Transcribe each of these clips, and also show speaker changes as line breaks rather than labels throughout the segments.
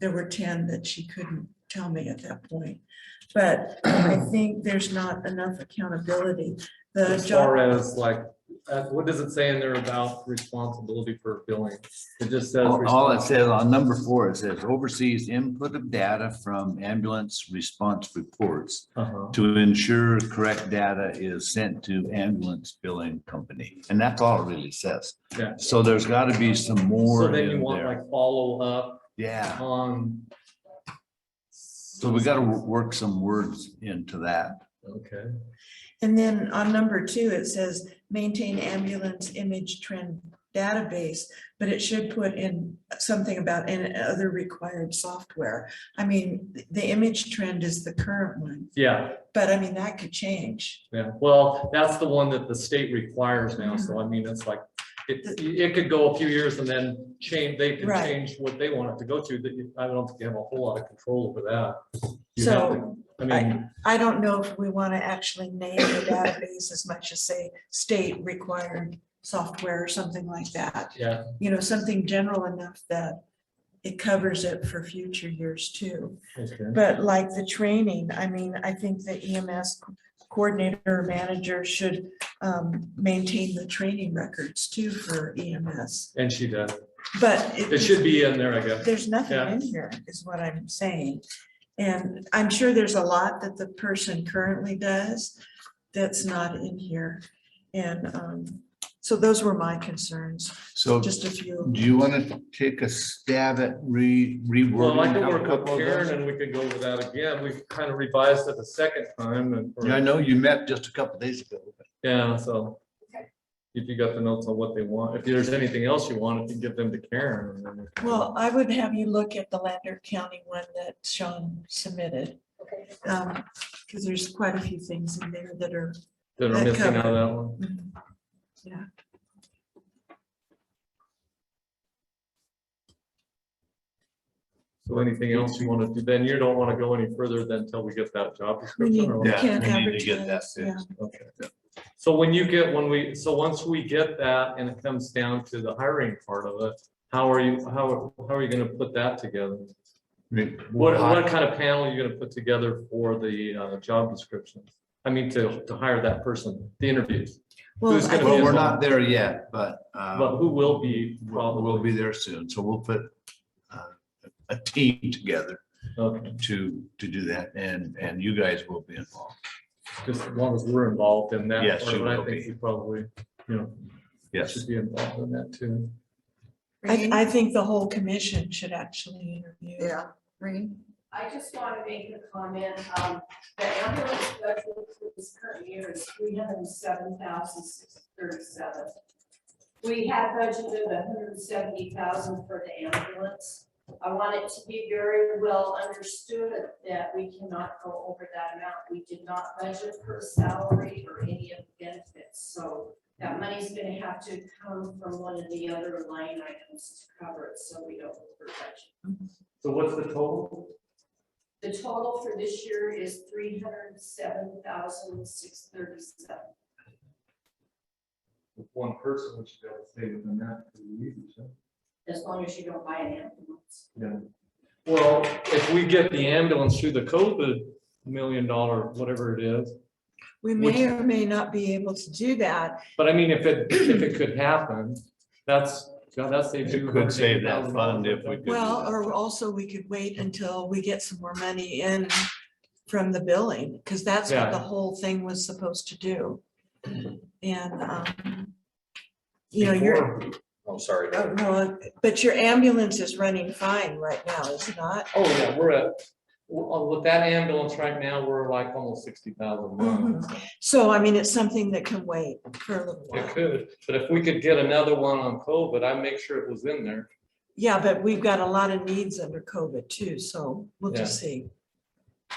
there were ten that she couldn't tell me at that point. But I think there's not enough accountability. The
As
job,
far as like, uh, what does it say in there about responsibility for billing? It just says.
All all it says on number four, it says oversees input of data from ambulance response reports
Uh-huh.
to ensure correct data is sent to ambulance billing company. And that's all it really says.
Yeah.
So there's got to be some
So
more
then you
in
want
there.
like follow up
Yeah,
on.
so we got to work some words into that.
Okay,
and then on number two, it says maintain ambulance image trend database, but it should put in something about and other required software. I mean, the- the image trend is the current one,
yeah,
but I mean, that could change.
yeah. Well, that's the one that the state requires now. So I mean, it's like, it, it could go a few years and then change, they can
Right.
change what they want it to go to. That you- I don't think you have a whole lot of control over that. You have
So
to- I mean,
I don't know if we want to actually name the database as much as say state required software or something like that.
yeah,
You know, something general enough that it covers it for future years too.
okay.
But like the training, I mean, I think the E EMS coordinator or manager should um, maintain the training records too for EMS.
And she does.
But
It should be in there, I guess.
there's nothing
Yeah.
in here, is what I'm saying. And I'm sure there's a lot that the person currently does that's not in here. And um, so those were my concerns,
So do
just a few.
you want to take a stab at re,
Well, I could
rewording?
work
a couple
with
of
Karen
those?
and we could go over that again. We've kind of revised it a second time and.
Yeah, I know you met just a couple days ago.
Yeah, so. If you got the notes on what they want, if there's anything else you want, if you give them to Karen. and then we can-
Well, I would have you look at the Lander County one that Sean submitted. Because there's quite a few things in there that are,
That are
that
missing out
covered.
of that one.
mm,
So anything else you want to do, then you don't want to go any further than until we get that job
we need,
description. or-
Yeah,
can't
we need to get that
advertise, yeah.
Okay. So when you get, when we, so once we get that and it comes down to the hiring part of it, how are you, how, how are you going to put that together? What, what kind of panel are you gonna put together for the uh, job description? I mean, to, to hire that person, the interviews,
Well,
Who's
I
gonna be
Well,
think-
we're not there yet, but. uh,
but who will be
We'll we'll
probably?
be there soon, so we'll put uh, a team together
Okay,
to, to do that, and, and you guys will be involved.
Just as long as we're involved in that.
Yes,
part,
you
but I
will
think
be.
we Probably, you know,
Yes,
should be involved in that too.
I,
Reading?
I think the whole commission should actually interview.
Yeah, reading.
I just want to make a comment, um, the ambulance budget for this current year is three hundred and seven thousand six thirty-seven. We had budgeted hundred and seventy thousand for the ambulance. I want it to be very well understood that we cannot go over that amount. We did not budget for salary or any of the benefits, so that money's gonna have to come from one of the other line items to cover it, so we don't over budget.
So what's the total?
The total for this year is three hundred and seven thousand six thirty-seven.
One person, which they'll stay within that.
As long as you don't buy an ambulance.
Well, if we get the ambulance through the COVID million dollar, whatever it is,
We
Which-
may or may not be able to do that.
but I mean, if it, if it could happen, that's, God, that's.
It could save that fund if we could do
Well,
that.
or also we could wait until we get some more money in from the billing, because that's what the whole thing was supposed to do. And, um, you know, your,
Oh, sorry.
oh, no, but your ambulance is running fine right now, is it not?
Oh, yeah, we're at, w- uh, with that ambulance right now, we're like almost sixty thousand miles.
So I mean, it's something that can wait for a little
It
while.
could, but if we could get another one on COVID, I'd make sure it was in there.
Yeah, but we've got a lot of needs under COVID too, so we'll just see.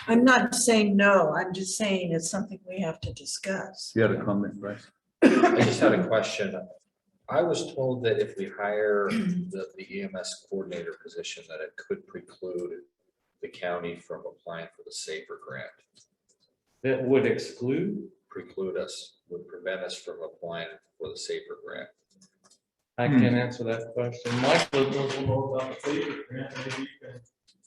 I'm not saying no, I'm just saying it's something we have to discuss.
you had a comment, Bryce?
I just had a question. I was told that if we hire the, the EMS coordinator position, that it could preclude the county from applying for the Safer grant,
That would exclude?
preclude us, would prevent us from applying for the Safer grant.
I can't answer that question. Michael knows more about the safety grant. Maybe you can